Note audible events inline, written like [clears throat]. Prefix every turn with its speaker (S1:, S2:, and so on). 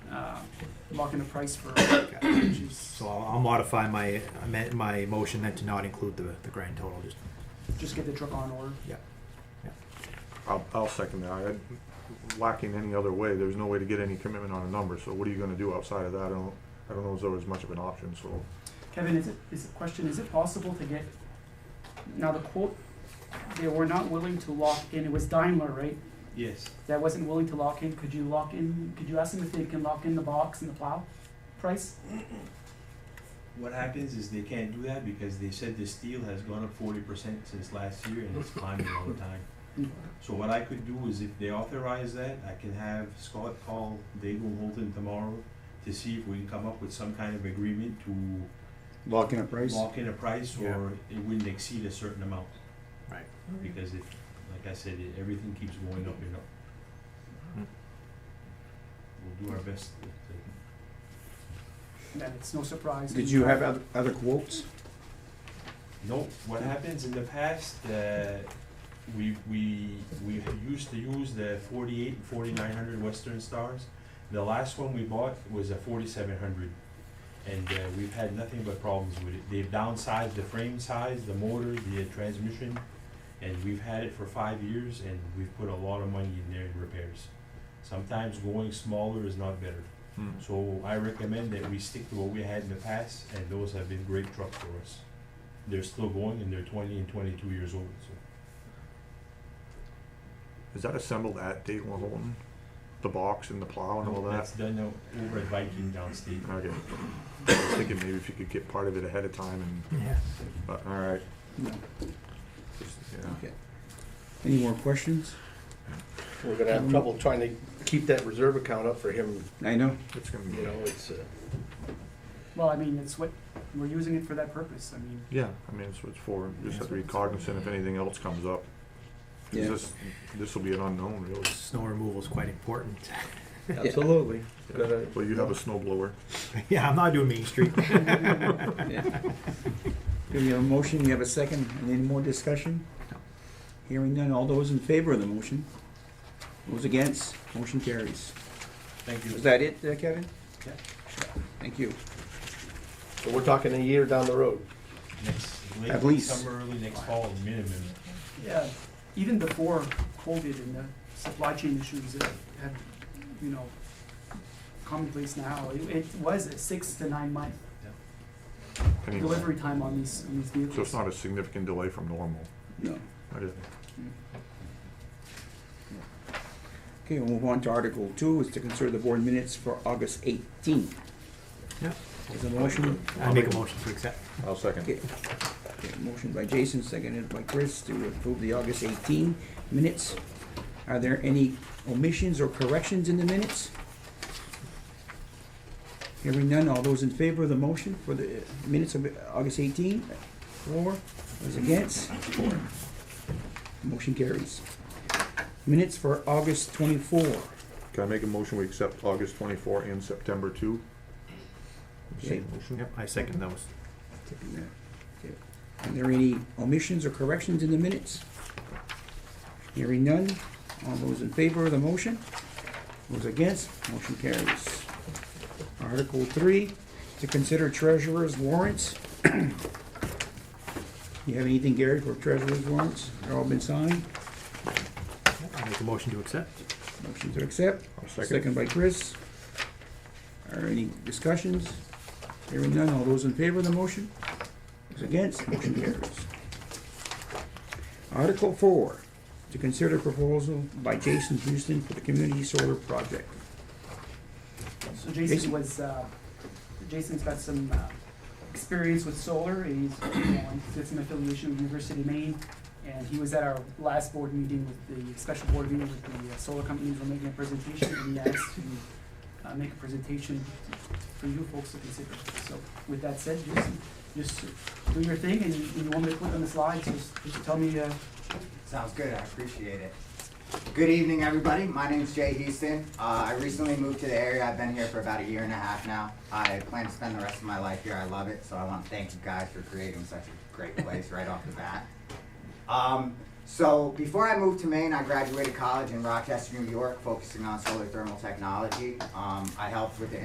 S1: Uh, locking the price for, which is,
S2: So I'll, I'll modify my, amend- my motion then to not include the, the grand total, just,
S1: just get the truck on order.
S2: yeah.
S3: I'll, I'll second that. I- Lacking any other way, there's no way to get any commitment on a number, so what are you gonna do outside of that? I don't, I don't know as though there's much of an option, so.
S1: Kevin, is it, is the question, is it possible to get, now the quote, they were not willing to lock in, it was Daimler, right?
S4: Yes.
S1: That wasn't willing to lock in, could you lock in, could you ask them if they can lock in the box and the plow price?
S4: What happens is they can't do that because they said the steel has gone up forty percent since last year and it's climbing all the time. So what I could do is if they authorize that, I can have Scott call Dago Holton tomorrow to see if we can come up with some kind of agreement to
S5: Lock in a price?
S4: lock in a price
S2: Yeah.
S4: or it wouldn't exceed a certain amount.
S2: Right.
S4: Because it, like I said, it- everything keeps going up and up.
S2: Mm.
S4: We'll do our best to- to
S1: Then it's no surprise.
S5: Did you have oth- other quotes?
S4: No, what happens in the past, uh, we, we, we used to use the forty-eight and forty-nine hundred Western Stars. The last one we bought was a forty-seven hundred, and, uh, we've had nothing but problems with it. They've downsized the frame size, the motor, the uh, transmission, and we've had it for five years, and we've put a lot of money in there in repairs. Sometimes going smaller is not better, so I recommend that we stick to what we had in the past, and those have been great trucks for us they're still going and they're twenty and twenty-two years old, so.
S3: Is that assembled at Dayton Holton? The box and the plow and all that?
S4: That's done now over at Viking downstate.
S3: Okay. I was thinking maybe if you could get part of it ahead of time and,
S2: Yeah.
S3: but, all right,
S5: No.
S3: just, yeah.
S5: Any more questions?
S6: We're gonna have trouble trying to keep that reserve account up for him,
S5: I know.
S3: It's gonna
S6: you
S3: be,
S6: know, it's, uh,
S1: Well, I mean, it's what, we're using it for that purpose, I mean,
S3: yeah, I mean, it's what it's for. You Just have to be cognizant if anything else comes up. 'Cause
S5: Yeah.
S3: This, this will be an unknown, really.
S2: Snow removal is quite
S6: [laughs]
S2: important.
S6: absolutely. uh, Gotta-
S3: Well, you have a snow blower.
S2: Yeah, I'm not doing
S6: [laughs]
S2: Main Street.
S5: Do you have a motion? You have a second? And Any more discussion? Hearing none. All those in favor of the motion? Those against? Motion carries.
S4: Thank you.
S5: Is that it, uh, Kevin?
S4: Yeah.
S5: Thank you.
S6: So we're talking a year down the road.
S4: Next,
S5: At
S4: late
S5: least.
S4: summer, early next fall, minimum.
S1: Yeah, even before COVID and the supply chain issues that have, you know, commonplace now, it, it was a six to nine month
S3: Anyway,
S1: delivery time on these, on these vehicles.
S3: Hmm. So it's not a significant delay from normal.
S5: No.
S3: I didn't.
S5: Okay, we'll move on to Article Two, is to consider the board minutes for August eighteenth.
S2: Yeah.
S5: Is there a motion?
S2: I make a motion to accept.
S3: I'll second.
S5: Okay. Okay, Motion by Jason, seconded by Chris to approve the August 18 minutes. Are there any omissions or corrections in the minutes? Hearing none, all those in favor of the motion for the uh, minutes of uh, August 18? Four. Those against? Four. Motion carries. Minutes for August 24.
S3: Can I make a motion, we accept August twenty-four and September two? Same
S5: Okay.
S3: motion?
S2: Yep, I second those.
S5: Taking that. Okay. Are there any omissions or corrections in the minutes? Hearing none, all those in favor of the motion? Those against, motion carries. Article three, to consider treasurer's warrants. [clears throat] You have anything, Gary, for treasurer's warrants? They've all been signed,
S2: Yep, I make a motion to accept.
S5: motion to accept.
S3: I'll second.
S5: Second by Chris. Are any discussions? Hearing none, all those in favor of the motion? Those against, motion carries. Article four, to consider proposal by Jason Houston for the community solar project.
S1: So Jason
S5: Jason?
S1: was, uh, Jason's got some, uh, experience with solar, he's, you know, he's got some affiliation with University of Maine, and he was at our last board meeting with the, special board meeting with the uh, solar companies, we're making a presentation, and he asked to, uh, make a presentation for you folks to consider. So with that said, Jason, just do your thing, and you want me to put on the slides, just, just tell me, uh,
S7: Sounds good, I appreciate it. Good evening, everybody. My name's Jay Houston. Uh, I recently moved to the area. I've been here for about a year and a half now. I plan to spend the rest of my life here. I love it, so I want to thank you guys for creating such a great place right off the bat. Um, so before I moved to Maine, I graduated college in Rochester, New York, focusing on solar thermal technology. Um, I helped with the